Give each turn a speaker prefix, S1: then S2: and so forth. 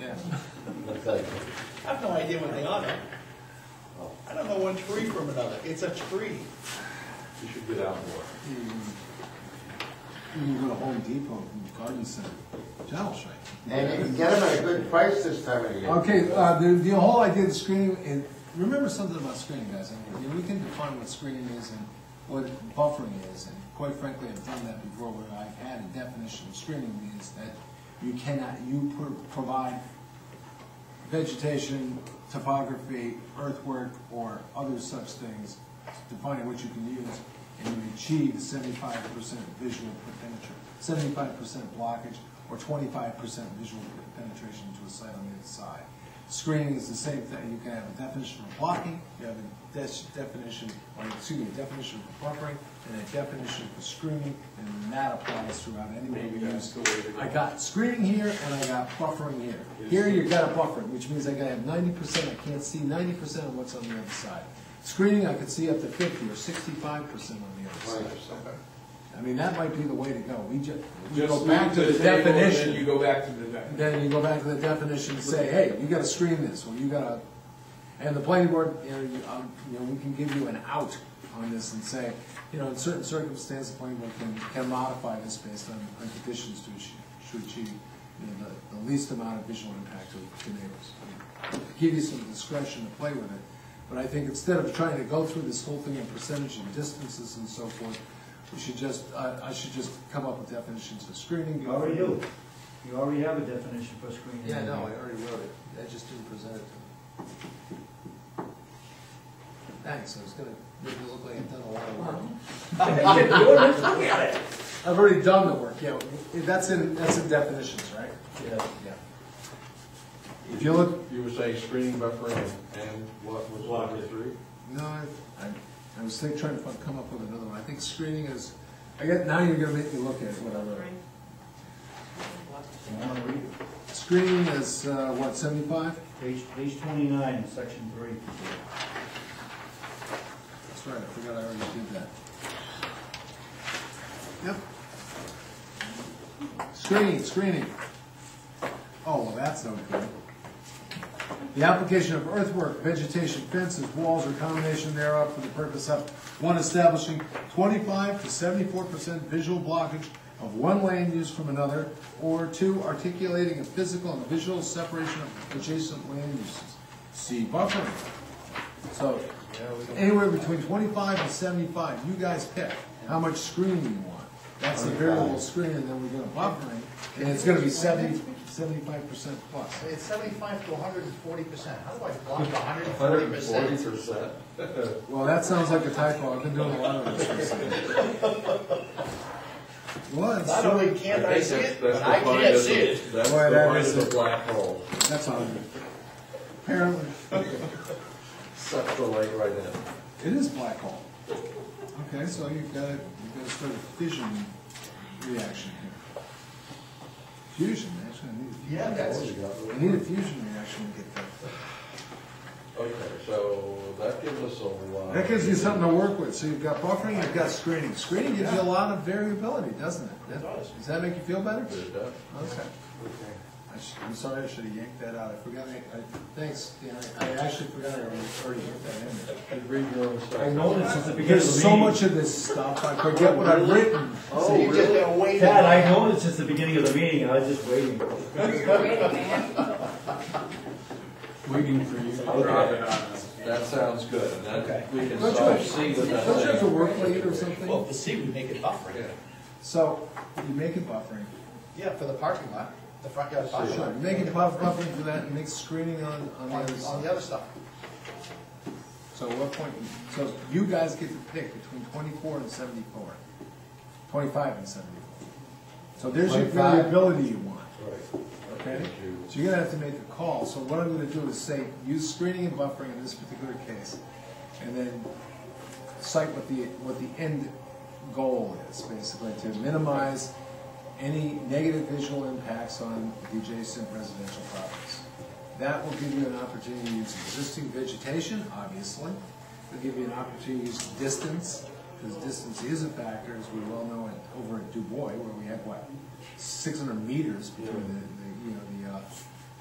S1: Yeah.
S2: Okay.
S3: I have no idea what they are.
S2: Oh,
S3: I don't know one tree from another. It's a tree.
S2: You should get out more.
S4: You can go to Home Depot and Garden Center. That'll show you.
S2: And you can get them at a good price this time of year.
S4: Okay, uh, the, the whole idea of the screening, and remember something about screening, guys, and you know, we can define what screening is and what buffering is, and quite frankly, I've done that before, where I've had a definition of screening means that you cannot, you pro- provide vegetation, topography, earthwork, or other such things, defining what you can use, and you achieve seventy-five percent visual penetration, seventy-five percent blockage, or twenty-five percent visual penetration to a site on the other side. Screening is the same thing, you can have a definition of blocking, you have a des- definition, or excuse me, a definition for buffering, and a definition for screening, and that applies throughout any way we use. I got screening here, and I got buffering here. Here, you got a buffer, which means I gotta have ninety percent, I can't see ninety percent of what's on the other side. Screening, I could see up to fifty or sixty-five percent on the other side. I mean, that might be the way to go, we ju, we
S1: Just
S4: go
S1: back
S4: back to the
S1: table, and then you
S4: definition.
S1: go back to the definition.
S4: Then you go back to the definition and say, hey, you gotta screen this, or you gotta, and the planning board, you know, you, um, you know, we can give you an out on this and say, you know, in certain circumstances, the planning board can, can modify this based on, on conditions to achieve, to achieve, you know, the, the least amount of visual impact to, to neighbors. I mean, Give you some discretion to play with it, but I think instead of trying to go through this whole thing in percentage and distances and so forth, we should just, I, I should just come up with definitions of screening.
S5: You already do. You already have a definition for screening.
S4: Yeah, no, I already wrote it, I just didn't present it to him. Thanks, I was gonna make it look like I've done a lot of work. I've already done the work, yeah, that's in, that's in definitions, right?
S2: Yeah.
S4: Yeah. If you look,
S2: You were saying screening buffer and, and what was number three?
S4: no, I, I- I was think- trying to fi- come up with another one, I think screening is, I get, now you're gonna make me look at what I wrote.
S5: I want to read it.
S4: Screening is, uh, what, seventy-five?
S5: Page, page twenty-nine, section three.
S4: That's right, I forgot I already did that. Yep. Screening, screening. Oh, well, that's no good. The application of earthwork, vegetation, fences, walls, or combination thereof for the purpose of, one, establishing twenty-five to seventy-four percent visual blockage of one land use from another, or two, articulating a physical and visual separation of adjacent land uses. See buffering. So, anywhere between twenty-five and seventy-five, you guys pick how much screen you want. That's the variable screen, and then we're gonna buffer it, and it's gonna be seventy, seventy-five percent plus.
S3: It's seventy-five to hundred and forty percent. How do I block hundred and
S2: Hundred
S3: forty
S2: and
S3: percent?
S2: forty percent.
S4: Well, that sounds like a typo, I've been doing a lot of this. What?
S3: Not only can't I see it, but I can't see it.
S2: That's the
S4: Boy, that
S2: point
S4: is
S2: of
S4: a-
S2: the black hole.
S4: That's all. Apparently,
S2: Sucks the light right in.
S4: it is black hole. Okay, so you've got, you've got to start a fission reaction here. Fusion, actually, I need a fusion.
S3: Yeah, that's,
S4: I need a fusion reaction to get that.
S2: Okay, so that gives us a lot.
S4: That gives you something to work with, so you've got buffering, you've got screening. Screening gives you a lot of variability, doesn't it? That-
S3: does.
S4: that make you feel better?
S2: Did that?
S4: Okay. I sh I'm sorry, I should've yanked that out, I forgot, I, I, thanks, Dan, I I actually forgot I already already yanked that in there.
S2: And read your own stuff.
S5: I noticed since the beginning of the meeting.
S4: There's so much of this stuff, I forget what I've written.
S3: so you just gotta wait.
S5: Dad, I noticed since the beginning of the meeting, and I was just waiting.
S1: Waiting for you. to drop it on us.
S2: That sounds good, and that, we can
S4: Don't you
S2: solve
S4: have-
S2: C
S4: Don't
S2: with
S4: you
S2: that.
S4: have to
S2: thing.
S4: work late or something?
S3: Well, the sea would make it buffering.
S2: Yeah.
S4: So, you make it buffering.
S3: Yeah, for the parking lot, the front yard parking
S4: Sure,
S3: lot.
S4: you make it buff- buffering for that, and make screening on, on the
S3: On,
S4: other side.
S3: on the other stuff.
S4: So what point, so you guys get to pick between twenty-four and seventy-four. Twenty-five and seventy-four. So there's your
S2: 25.
S4: variability you want,
S2: Right.
S4: okay?
S2: Thank you.
S4: So you're gonna have to make a call, so what I'm gonna do is say, use screening and buffering in this particular case, and then cite what the, what the end goal is, basically, to minimize any negative visual impacts on the adjacent residential properties. That will give you an opportunity to use existing vegetation, obviously. It'll give you an opportunity to use distance, because distance is a factor, as we well know, at- over at Du Bois, where we have, what, six hundred meters between the, the, you know, the, uh,